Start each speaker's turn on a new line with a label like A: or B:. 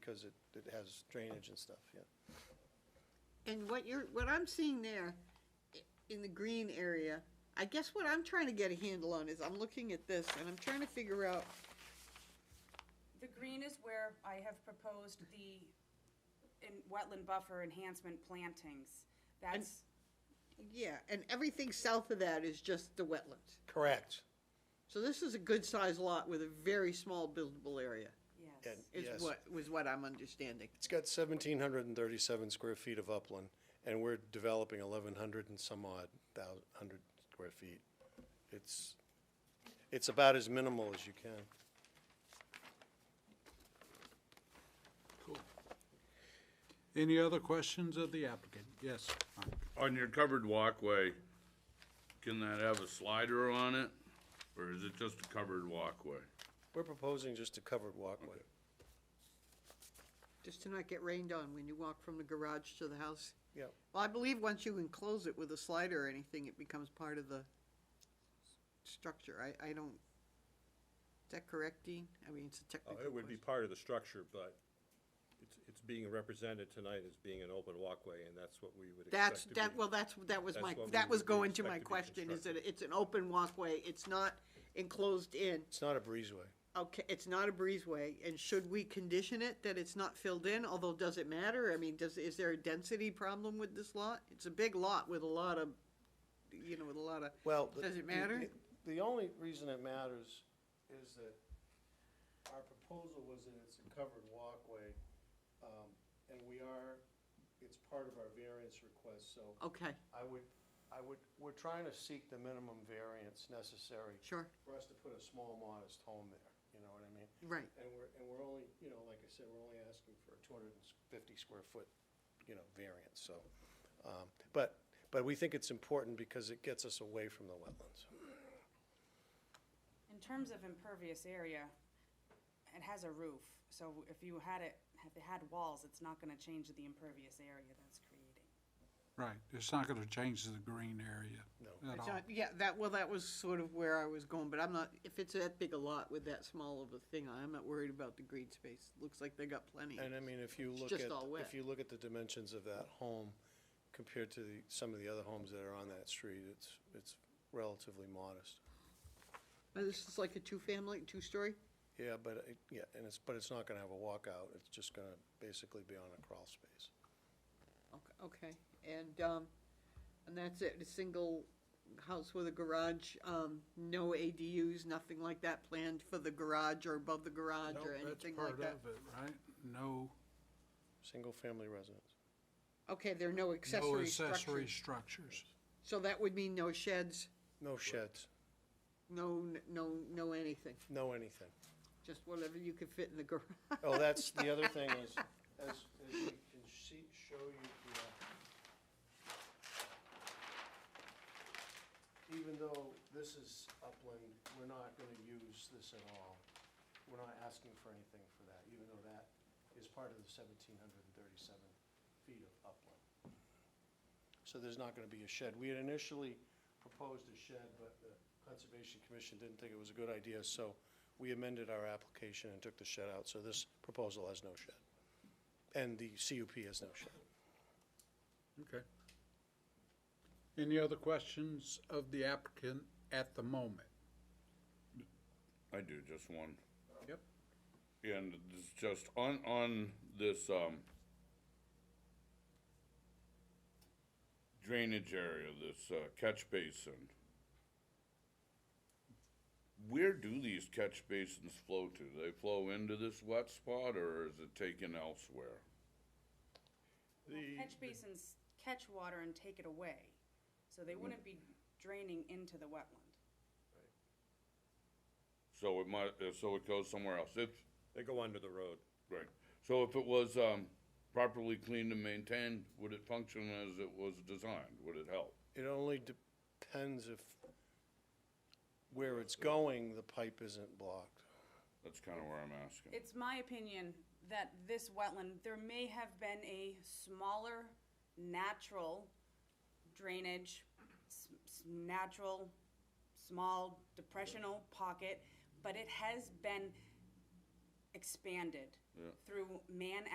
A: because it, it has drainage and stuff, yeah.
B: And what you're, what I'm seeing there i- in the green area, I guess what I'm trying to get a handle on is I'm looking at this and I'm trying to figure out,
C: The green is where I have proposed the in wetland buffer enhancement plantings. That's,
B: yeah, and everything south of that is just the wetlands.
A: Correct.
B: So this is a good-sized lot with a very small buildable area,
C: yes.
A: And,
B: is
A: yes,
B: what, was what I'm understanding.
A: it's got seventeen hundred and thirty-seven square feet of upland, and we're developing eleven hundred and some odd thousand, hundred square feet. It's, it's about as minimal as you can.
D: Any other questions of the applicant? Yes, Mike.
E: On your covered walkway, can that have a slider on it? Or is it just a covered walkway?
A: We're proposing just a covered walkway.
B: Just to not get rained on when you walk from the garage to the house.
A: Yeah,
B: Well, I believe once you enclose it with a slider or anything, it becomes part of the s- structure. I, I don't, is that correct, Dean? I mean, it's a
F: Uh,
B: technical
F: It would be
B: question.
F: part of the structure, but it's, it's being represented tonight as being an open walkway, and that's what we would expect
B: That's,
F: to be.
B: that, well, that's, that was
F: That's
B: my,
F: what we
B: that was
F: would
B: going to
F: expect
B: my
F: to be
B: question, is that it's an open walkway, it's not enclosed in.
A: it's not a breezeway.
B: Okay, it's not a breezeway, and should we condition it that it's not filled in, although does it matter? I mean, does, is there a density problem with this lot? It's a big lot with a lot of, you know, with a lot of.
A: Well. the-
B: Does it matter?
A: the- The only reason it matters is that our proposal was that it's a covered walkway, um, and we are, it's part of our variance request, so
B: Okay,
A: I would, I would, we're trying to seek the minimum variance necessary
B: sure,
A: for us to put a small modest home there, you know what I mean?
B: right.
A: And we're, and we're only, you know, like I said, we're only asking for a two hundred and fifty square foot, you know, variance, so. um, But, but we think it's important because it gets us away from the wetlands.
C: In terms of impervious area, it has a roof, so if you had it, if it had walls, it's not gonna change the impervious area that's creating.
D: right, it's not gonna change the green area
A: No.
D: at
B: It's
D: all.
B: not- Yeah, that, well, that was sort of where I was going, but I'm not, if it's that big a lot with that small of a thing, I'm not worried about the green space. Looks like they got plenty.
A: And I mean, if you
B: It's
A: look
B: just
A: at,
B: all wet.
A: if you look at the dimensions of that home compared to the, some of the other homes that are on that street, it's, it's relatively modest.
B: Uh, This is like a two-family, two-story?
A: Yeah, but, it- yeah, and it's, but it's not gonna have a walkout, it's just gonna basically be on a crawl space.
B: Okay, Okay, and, um, and that's it, a single house with a garage, um, no ADUs, nothing like that planned for the garage or above the garage
D: Nope,
B: or
D: that's
B: anything like
D: part
B: that?
D: of it, Right, no,
A: Single-family residence.
B: Okay, there are no
D: no
B: accessory
D: accessory
B: structures.
D: strucures.
B: So that would mean no sheds,
A: No sheds,
B: no, n- no, no anything,
A: no anything.
B: just whatever you could fit in the garage.
A: Oh, that's, the other thing is, as, as we can see, show you here, even though this is upland, we're not gonna use this at all. We're not asking for anything for that, even though that is part of the seventeen hundred and thirty-seven feet of upland. So there's not gonna be a shed. We had initially proposed a shed, but the Conservation Commission didn't think it was a good idea, so we amended our application and took the shed out, so this proposal has no shed. And the CUP has no shed.
D: Okay. Any other questions of the applicant at the moment?
E: I do, just one.
D: Yep.
E: And it's just on, on this, um, drainage area, this uh, catch basin. Where do these catch basins flow to? They flow into this wet spot or is it taken elsewhere?
C: Well, catch basins catch water and take it away, so they wouldn't be draining into the wetland.
E: So it might, uh, so it goes somewhere else. It's,
F: They go under the road.
E: Right. So if it was, um, properly cleaned and maintained, would it function as it was designed? Would it help?
A: It only depends if where it's going, the pipe isn't blocked.
E: That's kinda where I'm asking.
C: It's my opinion that this wetland, there may have been a smaller natural drainage, s- s- natural, small depressional pocket, but it has been expanded
E: Yeah.
C: through man